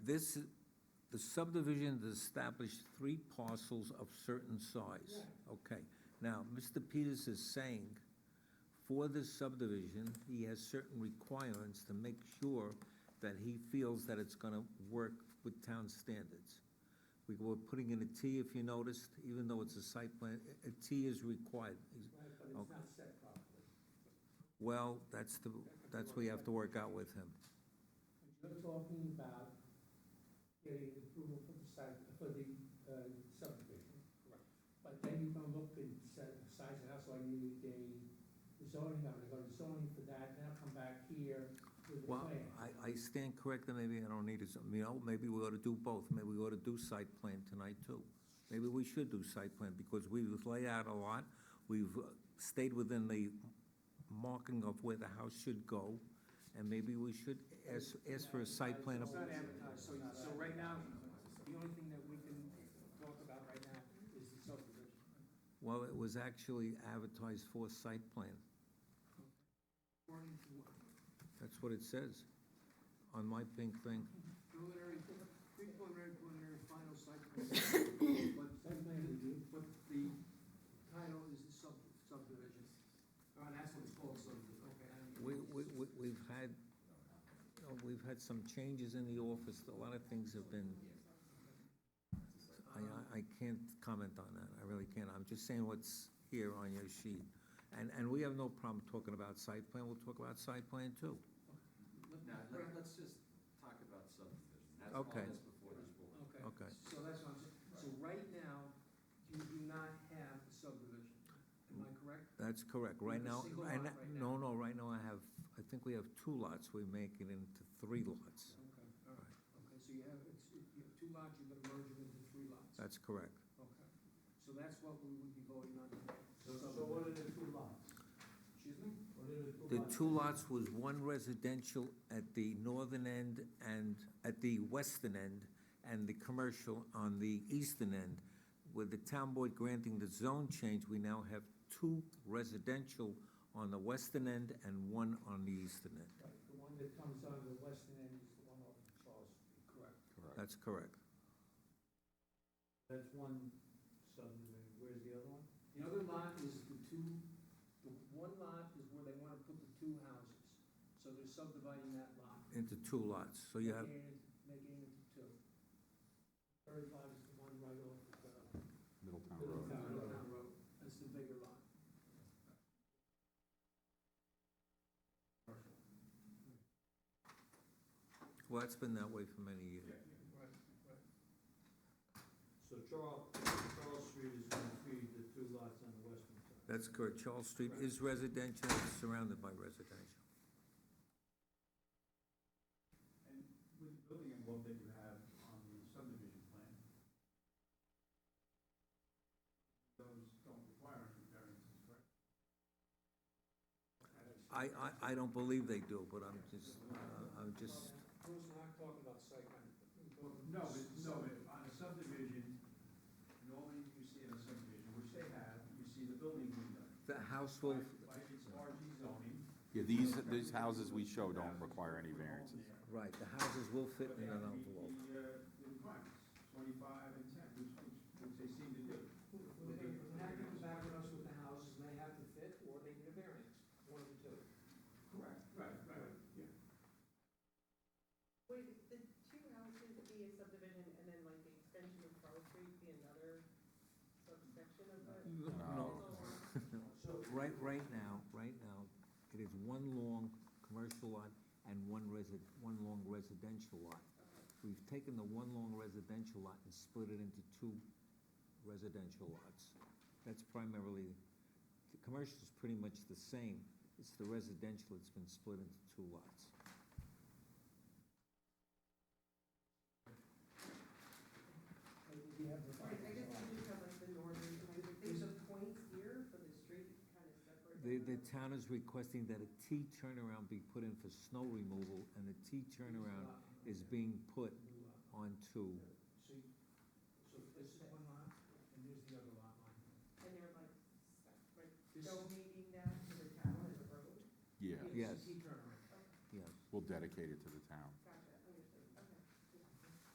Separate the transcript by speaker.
Speaker 1: this, the subdivision has established three parcels of certain size. Okay, now, Mr. Peters is saying, for this subdivision, he has certain requirements to make sure that he feels that it's gonna work with town standards. We were putting in a T, if you noticed, even though it's a site plan, a a T is required.
Speaker 2: Right, but it's
Speaker 1: Okay.
Speaker 2: not set properly.
Speaker 1: Well, that's the, that's what you have to work out with him.
Speaker 2: But you're talking about getting approval for the site, for the uh, subdivision. Correct. But then you're gonna look and set, size of house, so I need a zoning, I'm gonna go to zoning for that, then I'll come back here with a
Speaker 1: Well,
Speaker 2: plan.
Speaker 1: I, I stand corrected, maybe I don't need it, you know, maybe we ought to do both, maybe we ought to do site plan tonight too. Maybe we should do site plan, because we've laid out a lot, we've uh, stayed within the marking of where the house should go, and maybe we should ask, ask for a site plan.
Speaker 3: It's
Speaker 1: of-
Speaker 3: not advertised, so, so right now, the only thing that we can talk about right now is the subdivision.
Speaker 1: Well, it was actually advertised for site plan,
Speaker 3: According to what,
Speaker 1: that's what it says, on my pink thing.
Speaker 3: preliminary, pre-preliminary, preliminary, final site plan. But,
Speaker 2: Site plan review,
Speaker 3: but the title is the sub, subdivision. Oh, and that's what it's called, subdivision, okay. I don't-
Speaker 1: We, we, we- we've had, you know, we've had some changes in the office, a lot of things have been. I, I, I can't comment on that, I really can't, I'm just saying what's here on your sheet. And, and we have no problem talking about site plan, we'll talk about site plan too.
Speaker 3: Let-
Speaker 4: Now,
Speaker 3: let-
Speaker 4: let- let's just talk about subdivision, that's all
Speaker 1: Okay.
Speaker 4: that's before this board.
Speaker 3: Okay.
Speaker 1: Okay.
Speaker 3: So that's what I'm saying, so right now, you do not have a subdivision, am I correct?
Speaker 1: That's correct, right
Speaker 3: With a
Speaker 1: now,
Speaker 3: single
Speaker 1: and,
Speaker 3: lot right
Speaker 1: no, no, right now I have, I think we have two lots, we make it into three lots.
Speaker 3: Okay, all right, okay, so you have, it's, you have two lots, you're gonna merge them into three lots.
Speaker 1: That's correct.
Speaker 3: Okay, so that's what we would be voting on tonight.
Speaker 2: so so what are the two lots?
Speaker 3: Excuse me?
Speaker 2: What are the two
Speaker 1: The
Speaker 2: lots?
Speaker 1: two lots was one residential at the northern end and, at the western end, and the commercial on the eastern end. With the town board granting the zone change, we now have two residential on the western end and one on the eastern end.
Speaker 2: Right, The one that comes on the western end is the one over Charles Street.
Speaker 3: Correct.
Speaker 1: That's correct.
Speaker 2: That's one subdivision, where's the other one?
Speaker 3: The other lot is the two, the one lot is where they wanna put the two houses, so they're subdividing that lot.
Speaker 1: Into two lots, so you have,
Speaker 3: Making it- Making it into two.
Speaker 2: Third lot is the one right off the, uh, Middletown Road.
Speaker 5: Middletown Road.
Speaker 3: Middletown Road, that's the bigger lot.
Speaker 1: well, it's been that way for many years.
Speaker 3: Right, right.
Speaker 2: So Charles, Charles Street is gonna feed the two lots on the western side.
Speaker 1: That's correct. Charles Street is residential, it's surrounded by residential.
Speaker 6: And with the building envelope that you have on the subdivision plan, those don't require any variances, correct?
Speaker 1: I, I, I don't believe they do, but I'm just, uh, I'm just,
Speaker 3: Bruce, we're not talking about site plan. We're talking-
Speaker 6: No, but, no, but on a subdivision, normally you see in a subdivision, which they have, you see the building window.
Speaker 1: the house will,
Speaker 6: By by its RG zoning.
Speaker 5: Yeah, these, these houses we show don't require any variances.
Speaker 1: Right, the houses will fit
Speaker 6: But they
Speaker 1: in an
Speaker 6: have to meet
Speaker 1: envelope.
Speaker 6: the, uh, the requirements, twenty-five and ten, which, which, which they seem to do.
Speaker 3: When they, when that comes back with us with the houses, they have to fit, or they need a variance, one of the two.
Speaker 6: Correct. Right, right, yeah.
Speaker 7: Would the two houses be a subdivision and then like the extension of Charles Street be another subsection of the?
Speaker 1: No, right, right now, right now, it is one long commercial lot and one resi- one long residential lot. We've taken the one long residential lot and split it into two residential lots. That's primarily, the commercial is pretty much the same, it's the residential that's been split into two lots.
Speaker 2: We have the.
Speaker 7: Right, I guess we just have like the northern, and I would think the point here for the street kind of separate.
Speaker 1: The, the town is requesting that a T turnaround be put in for snow removal, and the T turnaround is being put
Speaker 3: New lot.
Speaker 1: onto,
Speaker 3: So, you- so this is one lot, and there's the other lot line.
Speaker 7: And they're like, sep- like
Speaker 3: This-
Speaker 7: donating that to the town as a road?
Speaker 5: Yeah,
Speaker 3: it's a
Speaker 1: Yes.
Speaker 3: T turnaround.
Speaker 1: yes.
Speaker 5: we'll dedicate it to the town.